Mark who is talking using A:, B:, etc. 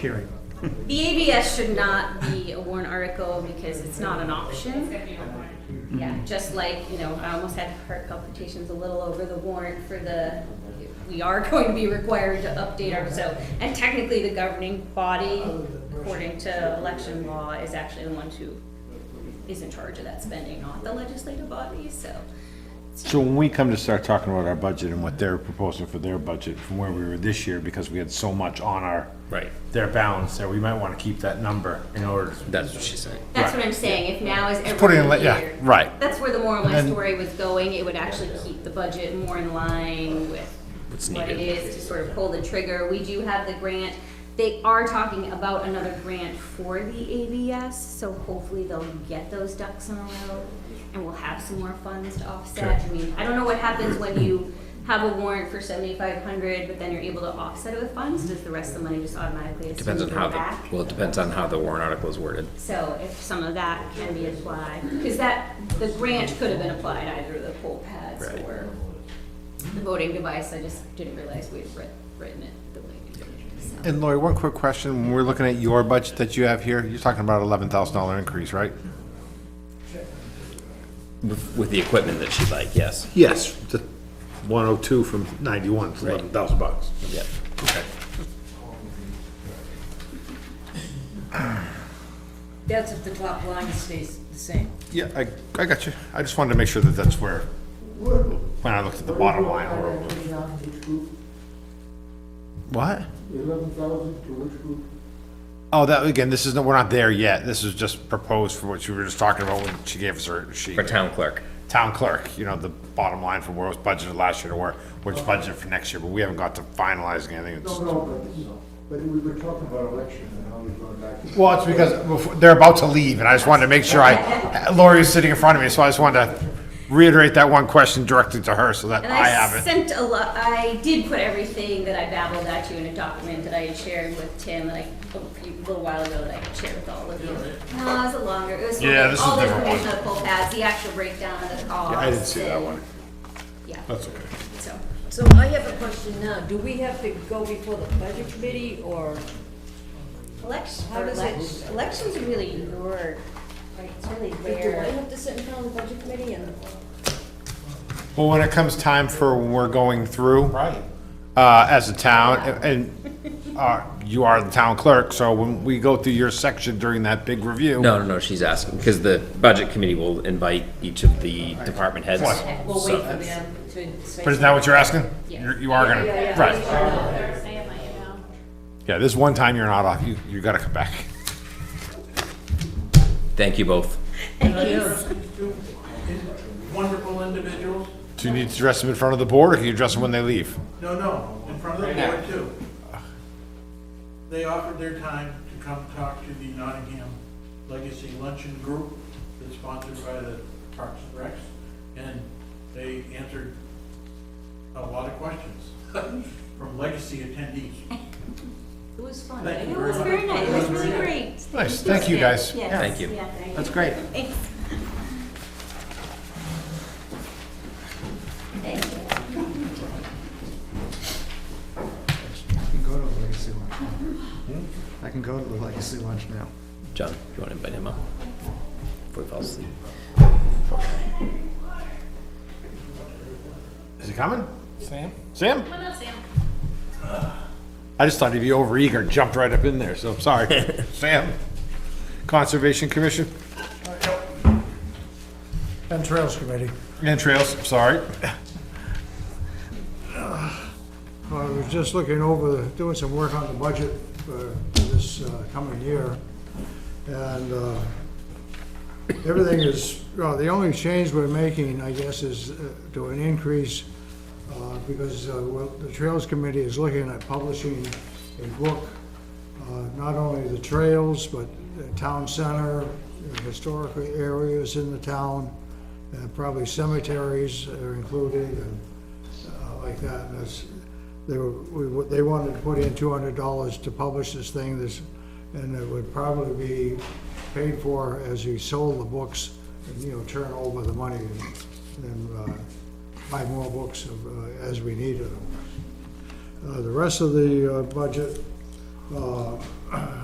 A: hearing.
B: The ABS should not be a warrant article because it's not an option. Yeah, just like, you know, I almost had heart palpitations a little over the warrant for the, we are going to be required to update our, so, and technically the governing body, according to election law, is actually the one who is in charge of that spending, not the legislative body, so.
C: So when we come to start talking about our budget and what they're proposing for their budget from where we were this year, because we had so much on our.
D: Right.
C: Their balance there, we might wanna keep that number in order. to-
D: That's what she's saying.
B: That's what I'm saying, if now is
C: put it
B: every
C: in, like, yeah,
B: year.
C: right.
B: That's where the moral of my
C: And-
B: story was going, it would actually keep the budget more in line with
D: What's
B: what it
D: needed.
B: is to sort of pull the trigger. We do have the grant, they are talking about another grant for the ABS, so hopefully they'll get those ducks in a row and we'll have some more funds to offset. I mean, I don't know what happens when you have a warrant for seventy-five hundred, but then you're able to offset it with funds, does the rest of the money just automatically assume
D: Depends on
B: go
D: how
B: back?
D: the, well, it depends on how the warrant article is worded.
B: So if some of that can be applied, because that, the grant could have been applied either to the poll pads
D: Right.
B: or the voting device, I just didn't realize we'd writ- written it the way we did. so.
C: And Lori, one quick question, when we're looking at your budget that you have here, you're talking about eleven thousand dollar increase, right?
D: With, with the equipment that she'd like, yes.
C: Yes, the one oh two from ninety-one, eleven thousand bucks.
D: Yep.
E: That's if the top line stays the same.
C: Yeah, I, I got you, I just wanted to make sure that that's where, when I looked at the bottom line. I wrote- What?
F: Eleven thousand to which group?
C: Oh, that, again, this isn't, we're not there yet, this is just proposed for what you were just talking about when she gave us her sheet.
D: For town clerk.
C: town clerk, you know, the bottom line for where it was budgeted last year to where, where it's budgeted for next year, but we haven't got to finalizing anything.
F: No,
C: It's-
F: no, but, but we were talking about election and how we're going back.
C: Well, it's because before- they're about to leave, and I just wanted to make sure I, Lori is sitting in front of me, so I just wanted to reiterate that one question directly to her so that
B: And
C: I
B: I
C: have it.
B: sent a lot, I did put everything that I babbled at you in a document that I had shared with Tim, that I, a few- little while ago, that I shared with all of you. No, it was a longer, it was for
C: Yeah, this is
B: all the
C: a different one.
B: information of the poll pads, the actual breakdown of the cost.
C: I didn't see that
B: and-
C: one. Oh.
B: Yeah,
C: That's okay.
B: so.
E: So I have a question now. Do we have to go before the budget committee or?
B: Elections,
E: How does
B: elections,
E: it-
B: elections are really your, like, it's really
E: Do I
B: their,
E: have to sit in front of the budget committee and?
C: Well, when it comes time for when we're going through. Right. Uh, as a town, and, and, uh, you are the town clerk, so when we go through your section during that big review.
D: No, no, no, she's asking, because the budget committee will invite each of the department heads.
C: What?
E: We'll
D: So-
E: wait for them to say.
C: But is that what you're asking?
B: Yeah.
C: You're- You are gonna, right. Yeah, this one time you're not off, you, you gotta come back.
D: Thank you both.
G: wonderful individuals.
C: Do you need to dress them in front of the board, or can you dress them when they leave?
G: No, no, in front of the board too. They offered their time to come talk to the Nottingham Legacy Luncheon Group that's sponsored by the Parks and Recs. And they answered a lot of questions from legacy attendees.
E: It was fun.
G: Thank you
B: it
G: very
B: was
G: much.
B: very nice, it was
G: very
B: really
G: nice.
B: great.
C: Nice, thank you guys.
B: Yes,
D: Thank you.
B: yeah, thank
C: That's
B: you.
C: great.
B: Thanks. Thank you.
G: I can go to the legacy lunch. Hmm? I can go to the legacy lunch now.
D: John, you want to invite him up? Before he falls asleep.
C: Is he coming? Sam? Sam? I just thought he'd be overeager, jumped right up in there, so I'm sorry. Sam? Conservation Commission
G: And Trails Committee.
C: and Trails, I'm sorry.
G: Well, I was just looking over, doing some work on the budget for this uh, coming year, and uh, everything is, well, the only change we're making, I guess, is uh, to an increase, uh, because uh, well, the Trails Committee is looking at publishing a book, uh, not only the trails, but the town center, historical areas in the town, and probably cemeteries are included, and uh, like that, and it's, they were, we, wa- they wanted to put in two hundred dollars to publish this thing, this, and it would probably be paid for as you sold the books, and, you know, turn over the money and, and, uh, buy more books of, uh, as we needed them. Uh, the rest of the, uh, budget uh,